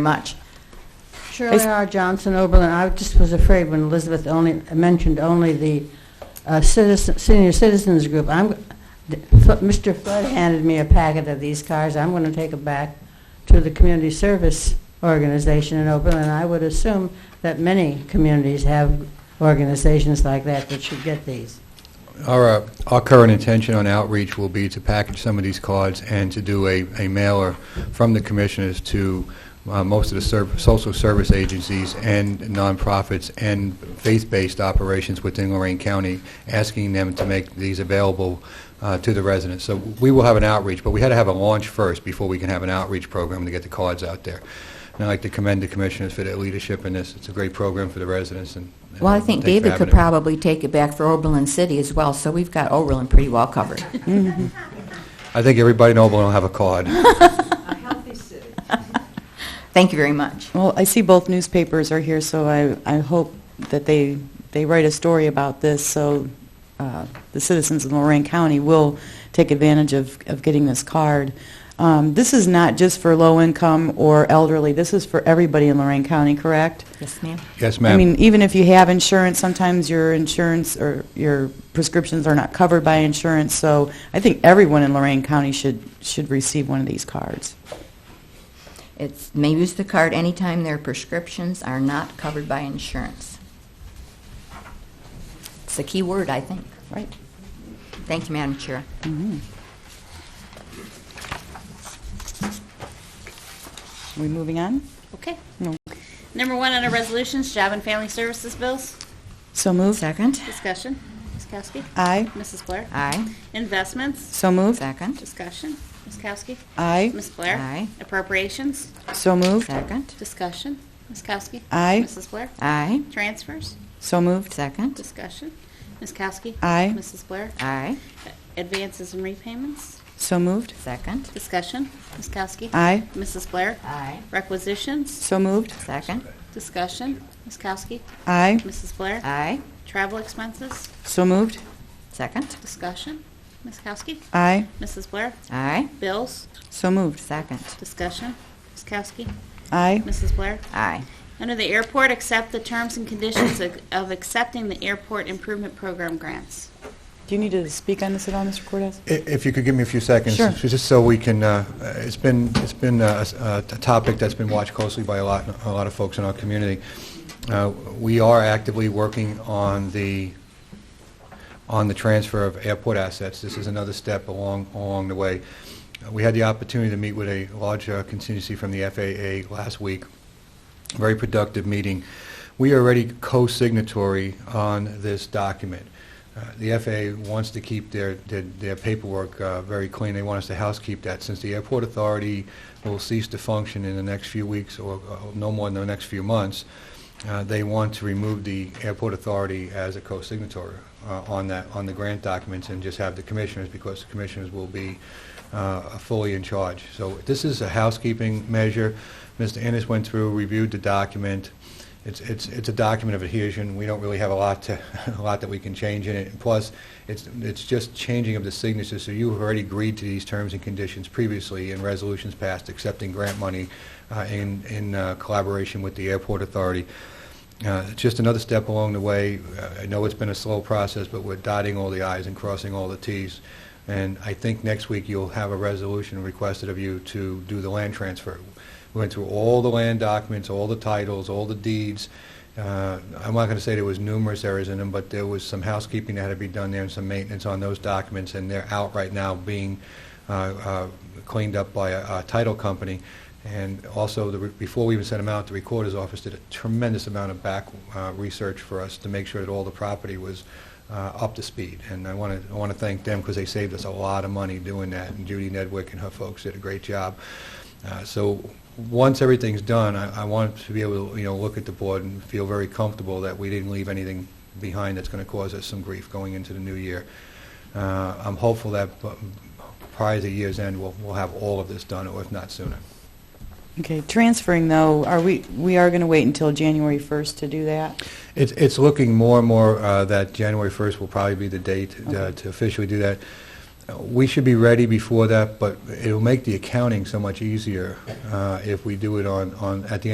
much. Shirley R. Johnson, Oberlin, I just was afraid when Elizabeth only, mentioned only the uh, citizen, senior citizens group. I'm, Mr. Flood handed me a packet of these cards, I'm going to take it back to the community service organization in Oberlin. I would assume that many communities have organizations like that that should get these. Our, uh, our current intention on outreach will be to package some of these cards and to do a, a mailer from the commissioners to uh, most of the serv- social service agencies and nonprofits and faith-based operations within Lorraine County, asking them to make these available uh, to the residents. So we will have an outreach, but we had to have a launch first before we can have an outreach program to get the cards out there. And I'd like to commend the commissioners for their leadership in this. It's a great program for the residents and. and Well, I think thanks for David having could it. probably take it back for Oberlin City as well, so we've got Oberlin pretty well covered. I think everybody in Oberlin will have a card. Thank you very much. Well, I see both newspapers are here, so I, I hope that they, they write a story about this, so uh, the citizens of Lorraine County will take advantage of, of getting this card. Um, This is not just for low-income or elderly, this is for everybody in Lorraine County, correct? Yes, ma'am. Yes, I ma'am. mean, even if you have insurance, sometimes your insurance or your prescriptions are not covered by insurance, so I think everyone in Lorraine County should, should receive one of these cards. It's, may use the card anytime their prescriptions are not covered by insurance. It's a key word, I think. Right. Thank you, Madam Chair. Are we moving on? Okay. No. Number one on our resolutions, job and family services bills. So moved. Second? Discussion. Ms. Kowski. Aye. Mrs. Blair. Aye. Investments. So moved. Second? Discussion. Ms. Kowski. Aye. Ms. Blair. Aye. Appropriations. So moved. Second? Discussion. Ms. Kowski. Aye. Mrs. Blair. Aye. Transfers. So moved. Second? Discussion. Ms. Kowski. Aye. Mrs. Blair. Aye. Advances and repayments. So moved. Second? Discussion. Ms. Kowski. Aye. Mrs. Blair. Aye. Requisitions. So moved. Second? Discussion. Ms. Kowski. Aye. Mrs. Blair. Aye. Travel expenses. So moved. Second? Discussion. Ms. Kowski. Aye. Mrs. Blair. Aye. Bills, So moved. Second? discussion. Ms. Kowski, Aye. Mrs. Blair. Aye. Under the airport, accept the terms and conditions of of accepting the airport improvement program grants. Do you need to speak on this at all, Mr. Cortez? I- If you could give me a few seconds. Sure. Just so we can, uh, it's been, it's been uh, a a topic that's been watched closely by a lot, a lot of folks in our community. Uh, We are actively working on the, on the transfer of airport assets. This is another step along, along the way. Uh, We had the opportunity to meet with a large uh, contingency from the FAA last week. Very productive meeting. We are already co-signatory on this document. Uh, The FAA wants to keep their, their- their paperwork uh, very clean. They want us to housekeep that. Since the airport authority will cease to function in the next few weeks, or uh, no more than the next few months, uh, they want to remove the airport authority as a co-signatory uh, on that, on the grant documents, and just have the commissioners, because the commissioners will be uh, fully in charge. So this is a housekeeping measure. Mr. Ennis went through, reviewed the document. It's, it's, it's a document of adhesion. We don't really have a lot to, a lot that we can change in it. And Plus, it's, it's just changing of the signatures, so you have already agreed to these terms and conditions previously in resolutions passed accepting grant money uh, in, in uh, collaboration with the airport authority. Uh, it's Just another step along the way. Uh, I know it's been a slow process, but we're dotting all the i's and crossing all the t's. And I think next week you'll have a resolution requested of you to do the land transfer. We went through all the land documents, all the titles, all the deeds. Uh, I'm not going to say there was numerous errors in them, but there was some housekeeping that had to be done there and some maintenance on those documents, and they're out right now being uh, uh, cleaned up by a a title company. And also, the re- before we even sent them out, the Recorder's Office did a tremendous amount of back uh, research for us to make sure that all the property was uh, up to speed. And I want to, I want to thank them because they saved us a lot of money doing that, and Judy Nedwick and her folks did a great job. Uh, So, once everything's done, I I want to be able to, you know, look at the board and feel very comfortable that we didn't leave anything behind that's going to cause us some grief going into the new year. Uh, I'm hopeful that uh, prior to year's end, we'll we'll have all of this done, or if not sooner. Okay, transferring though, are we, we are going to wait until January 1st to do that? It's, it's looking more and more uh, that January 1st will probably be the date uh, Okay. to officially do that. we should be ready before that, but it'll make the accounting so much easier uh, if we do it on, on, at the